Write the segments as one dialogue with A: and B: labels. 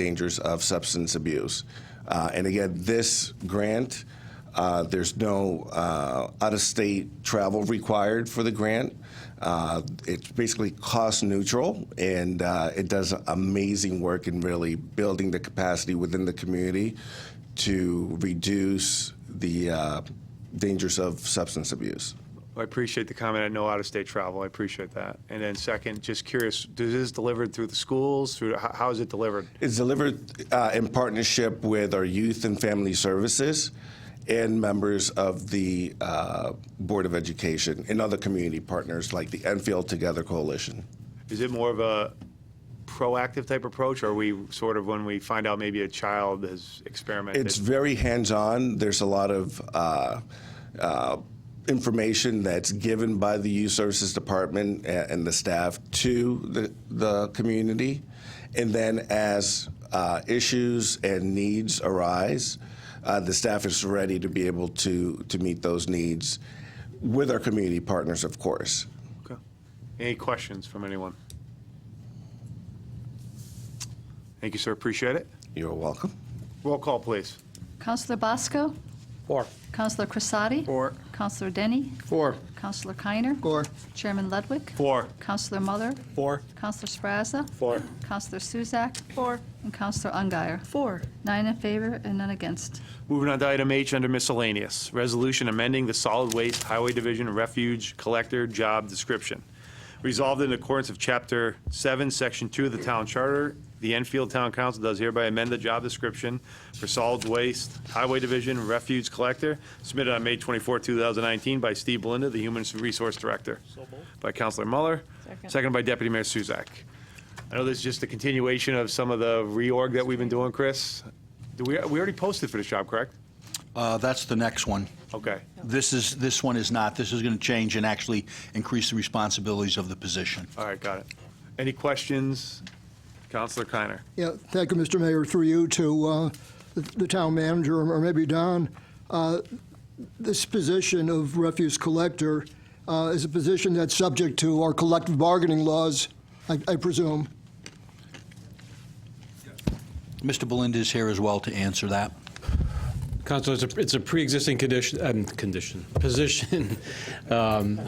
A: dangers of substance abuse. Uh, and again, this grant, uh, there's no uh, out of state travel required for the grant. Uh, it's basically cost neutral and uh, it does amazing work in really building the capacity within the community to reduce the uh, dangers of substance abuse.
B: I appreciate the comment. I know out-of-state travel. I appreciate that. And then second, just curious, does this delivered through the schools? Through how, how is it delivered?
A: It's delivered uh, in partnership with our Youth and Family Services and members of the uh, Board of Education and other community partners like the Enfield Together Coalition.
B: Is it more of a proactive type approach, or are we sort of when we find out maybe a child has experimented?
A: It's very hands on. There's a lot of uh, uh, information that's given by the Youth Services Department a- and the staff to the, the community. And then as uh, issues and needs arise, uh, the staff is ready to be able to, to meet those needs with our community partners, of course.
B: Okay. Any questions from anyone? Thank you, sir. Appreciate it.
A: You're welcome.
B: Roll call, please.
C: Counselor Bosco?
D: Four.
C: Counselor Crissati?
D: Four.
C: Counselor Denny?
D: Four.
C: Counselor Keiner?
D: Four.
C: Chairman Ludwig?
B: Four.
C: Counselor Muller?
D: Four.
C: Counselor Sprazza?
D: Four.
C: Counselor Suzak?
E: Four.
C: And Counselor Ungary.
E: Four.
C: Nine in favor and none against.
B: Moving on to item H under miscellaneous, resolution amending the solid waste highway division refuge collector job description. Resolved in accordance of chapter seven, section two of the town charter, the Enfield Town Council does hereby amend the job description for solid waste highway division refuge collector submitted on May 24, 2019 by Steve Belinda, the Human Resource Director. By Counselor Muller,
E: Second.
B: seconded by Deputy Mayor Suzak. I know this is just a continuation of some of the reorg that we've been doing, Chris. Do we, we already posted for this job, correct?
F: Uh, That's the next one.
B: Okay.
F: This is, this one is not. This is going to change and actually increase the responsibilities of the position.
B: All right, got it. Any questions? Counselor Keiner.
G: Yeah, thank you, Mr. Mayor, through you to uh, the- the town manager, or maybe Don. Uh, This position of refuse collector uh, is a position that's subject to our collective bargaining laws, I I presume.
F: Mr. Belinda is here as well to answer that.
H: Counselor, it's a, it's a pre-existing condition, um, condition, position. Um,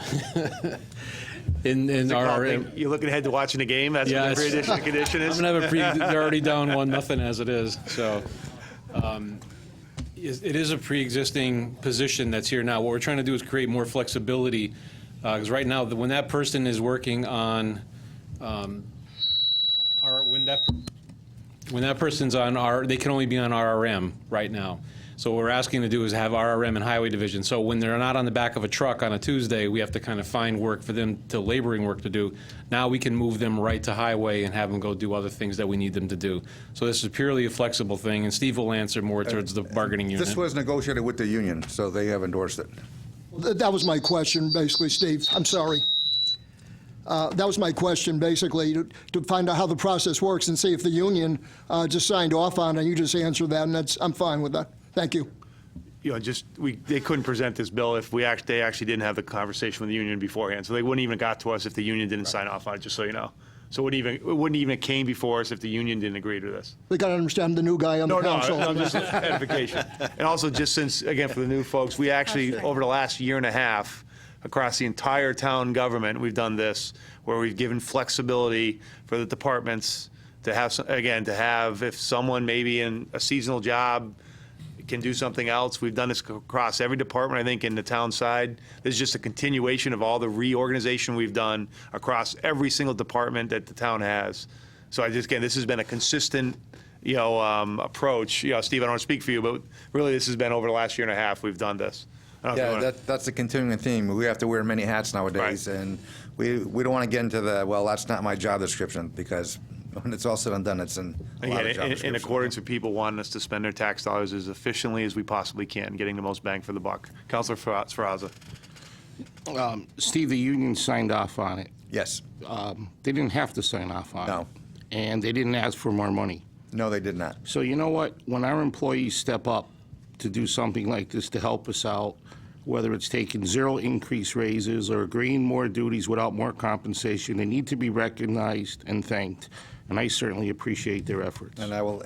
H: in in our, I'm
B: You're looking ahead to watching the game? That's what the
H: Yes.
B: pre-addition condition is?
H: gonna have a pre. They're already down one nothing as it is. So, um, is- it is a pre-existing position that's here now. What we're trying to do is create more flexibility, because right now, the- when that person is working on, um, our when that when that person's on R, they can only be on RRM right now. So what we're asking to do is have RRM and Highway Division. So when they're not on the back of a truck on a Tuesday, we have to kind of find work for them to laboring work to do. Now we can move them right to Highway and have them go do other things that we need them to do. So this is purely a flexible thing, and Steve will answer more towards the bargaining unit.
I: This was negotiated with the union, so they have endorsed it.
G: Th- That was my question, basically, Steve. I'm sorry. Uh, That was my question, basically, to to find out how the process works and see if the union uh, just signed off on it. You just answered that, and that's, I'm fine with that. Thank you.
B: You know, just, we, they couldn't present this bill if we act, they actually didn't have the conversation with the union beforehand. So they wouldn't even got to us if the union didn't sign off on it, just so you know. So it wouldn't even, it wouldn't even came before us if the union didn't agree to this.
G: We got to understand the new guy on
B: No,
G: the
B: no,
G: council.
B: no, just edification. And also, just since, again, for the new folks, we actually, over the last year and a half, across the entire town government, we've done this, where we've given flexibility for the departments to have, some- again, to have, if someone maybe in a seasonal job can do something else, we've done this across every department, I think, in the town side. This is just a continuation of all the reorganization we've done across every single department that the town has. So I just, again, this has been a consistent, you know, um, approach. You know, Steve, I don't want to speak for you, but really, this has been over the last year and a half, we've done this. I don't know if you
I: Yeah,
B: wanna-
I: that, that's a continuing theme. We have to wear many hats nowadays,
B: Right.
I: and we, we don't want to get into the, well, that's not my job description, because when it's all said and done, it's in a lot of job
B: Again, in, in
I: descriptions.
B: accordance with people wanting us to spend their tax dollars as efficiently as we possibly can, getting the most bang for the buck. Counselor Fa- Srazza.
J: Steve, the union signed off on it.
I: Yes.
J: Um, They didn't have to sign off on it.
I: No.
J: And they didn't ask for more money.
I: No, they did not.
J: So you know what? When our employees step up to do something like this to help us out, whether it's taking zero increase raises or agreeing more duties without more compensation, they need to be recognized and thanked, and I certainly appreciate their efforts.
I: And I will